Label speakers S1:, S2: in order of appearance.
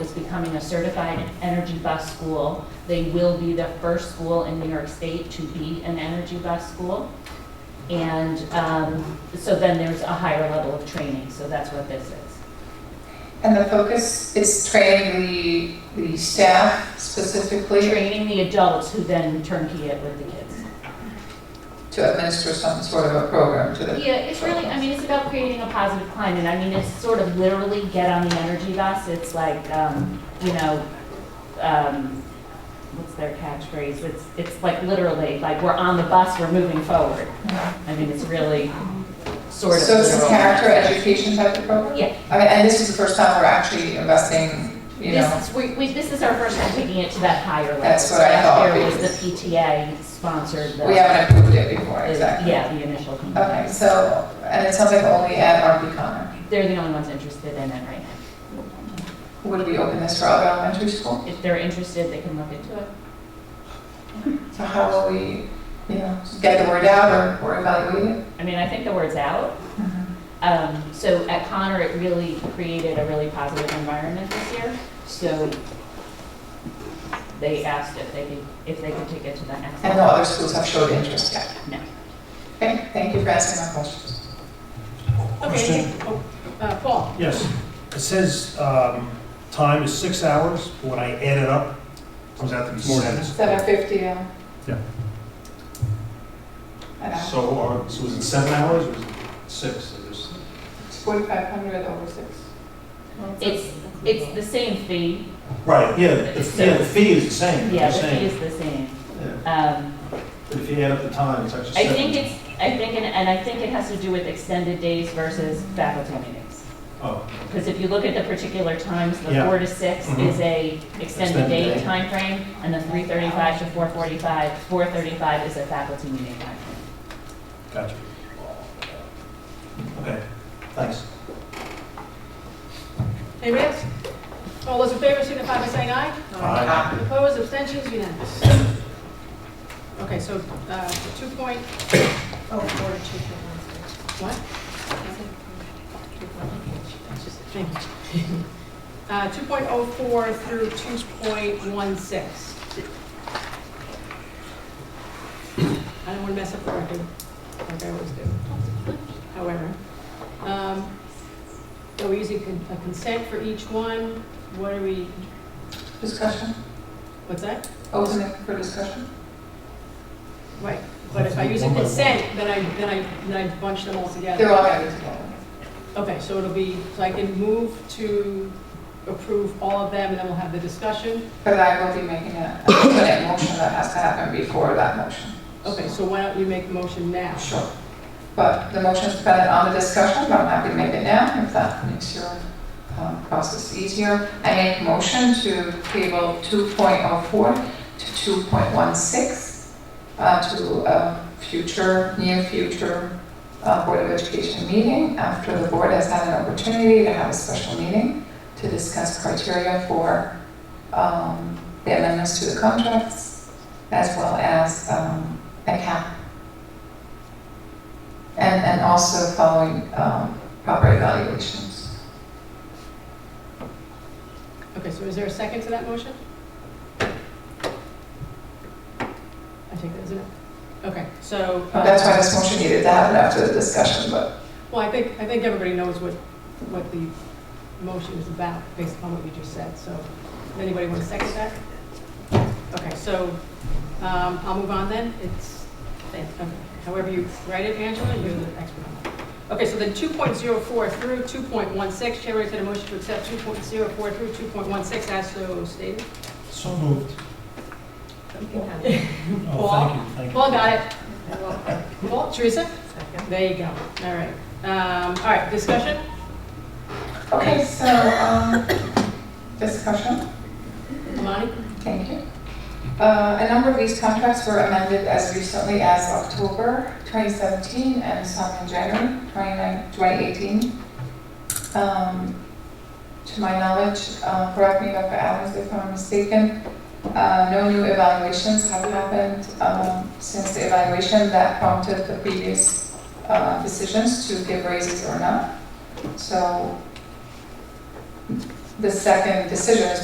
S1: becoming a certified energy bus school. They will be the first school in New York State to be an energy bus school. And um, so then there's a higher level of training, so that's what this is.
S2: And the focus is training the, the staff specifically
S1: Training the adults who then turnkey it with the kids.
S2: to administer some sort of a program to the.
S1: Yeah, it's really, I mean, it's about creating a positive climate. I mean, it's sort of literally get on the energy bus. It's like, um, you know, um, what's their catchphrase? It's, it's like literally, like we're on the bus, we're moving forward. I mean, it's really sort of.
S2: So it's a
S1: literal.
S2: character education type of program?
S1: Yeah.
S2: I mean, and this is the first time we're actually investing, you know,
S1: This, is- we, we, this is our first time taking it to that higher level.
S2: That's what I thought,
S1: Last year was
S2: because-
S1: the PTA sponsored the.
S2: we haven't approved it before,
S1: the-
S2: exactly.
S1: Yeah, the initial.
S2: Okay,
S1: complaint.
S2: so, and it sounds like only at RP Connor.
S1: They're the only ones interested in it right now.
S2: Would we open this for other elementary school?
S1: If they're interested, they can look into it.
S2: So how will we, you know, get the word out or, or evaluate it?
S1: I mean, I think the word's out. Um, so at Connor, it really created a really positive environment this year. So they asked if they could, if they could take it to the next
S2: And no
S1: level.
S2: other schools have showed interest yet?
S1: No.
S2: Okay, thank you for asking my questions.
S3: Question?
S4: Uh, Paul?
S3: Yes. It says um, time is six hours, but when I add it up, it comes out to be seven.
S2: Seven fifty, um. yeah.
S3: Yeah.
S5: So,
S3: uh,
S5: are- so was it seven hours or was it six? It was-
S2: It's forty-five hundred over six.
S1: It's, it's the same fee.
S5: Right, yeah, the fee, yeah, the fee is the same,
S1: Yeah,
S5: you're
S1: the fee
S5: saying.
S1: is the same.
S5: Yeah.
S1: Um,
S5: But if you add up the time, it's actually
S1: I
S5: seven.
S1: think it's, I think, and- and I think it has to do with extended days versus faculty meetings.
S5: Oh,
S1: Because if you look at the particular times, the
S5: Yeah.
S1: four to six
S5: Mhm.
S1: is a extended
S5: Extended
S1: day
S5: day.
S1: timeframe, and the three thirty-five to four forty-five, four thirty-five is a faculty meeting timeframe.
S3: Gotcha.
S5: okay, thanks.
S4: Anybody else? All those in favor signify by saying aye.
S3: Aye.
S4: Opposed, abstentions, unanimous. Okay, so uh, two point,
S6: Oh, or two for Wednesday.
S4: what? Thank you. Uh, 2.04 through 2.16. I don't want to mess up the record, like I always do. However, um, so we're using con- a consent for each one. What are we,
S2: Discussion,
S4: what's that?
S2: open it for discussion?
S4: Right, but if I use a
S3: One by one.
S4: consent, then I, then I, then I bunch them all together.
S2: They're all gonna be together.
S4: Okay, so it'll be, so I can move to approve all of them, and then we'll have the discussion.
S2: But I will be making a, a definite motion that has to happen before that motion.
S4: Okay, so why don't you make the motion now?
S2: Sure. But the motion is dependent on the discussion, but I'm happy to make it now if that makes your um, process easier. I make motion to table 2.04 to 2.16 uh, to a future, near future uh, Board of Education meeting after the board has had an opportunity to have a special meeting to discuss criteria for um, the amendments to the contracts as well as um, a cap and, and also following um, proper evaluations.
S4: Okay, so is there a second to that motion? I take that as a no. Okay, so. uh,
S2: That's why this motion needed to happen after the discussion, but
S4: Well, I think, I think everybody knows what, what the motion is about, based upon what you just said, so, does anybody want to second that? Okay, so, um, I'll move on then, it's, okay, however you write it, Angela, you're the expert on that. Okay, so then two point zero four through two point one six, Chair entertain a motion to accept two point zero four through two point one six as so stated.
S3: So moved.
S6: You can have it.
S3: Oh, thank you, thank you.
S4: Paul got it,
S6: I will.
S4: Paul, Teresa,
S6: Second.
S4: there you go, all right, um, all right, discussion?
S2: okay, so um, discussion,
S4: Lonnie?
S2: thank you. Uh, a number of these contracts were amended as recently as October 2017 and some in January 29 2018. Um, to my knowledge, uh, correct me, Dr. Adams, if I'm mistaken, Uh, No new evaluations have happened um, since the evaluation that prompted the previous uh, decisions to give raises or not. So the second decision is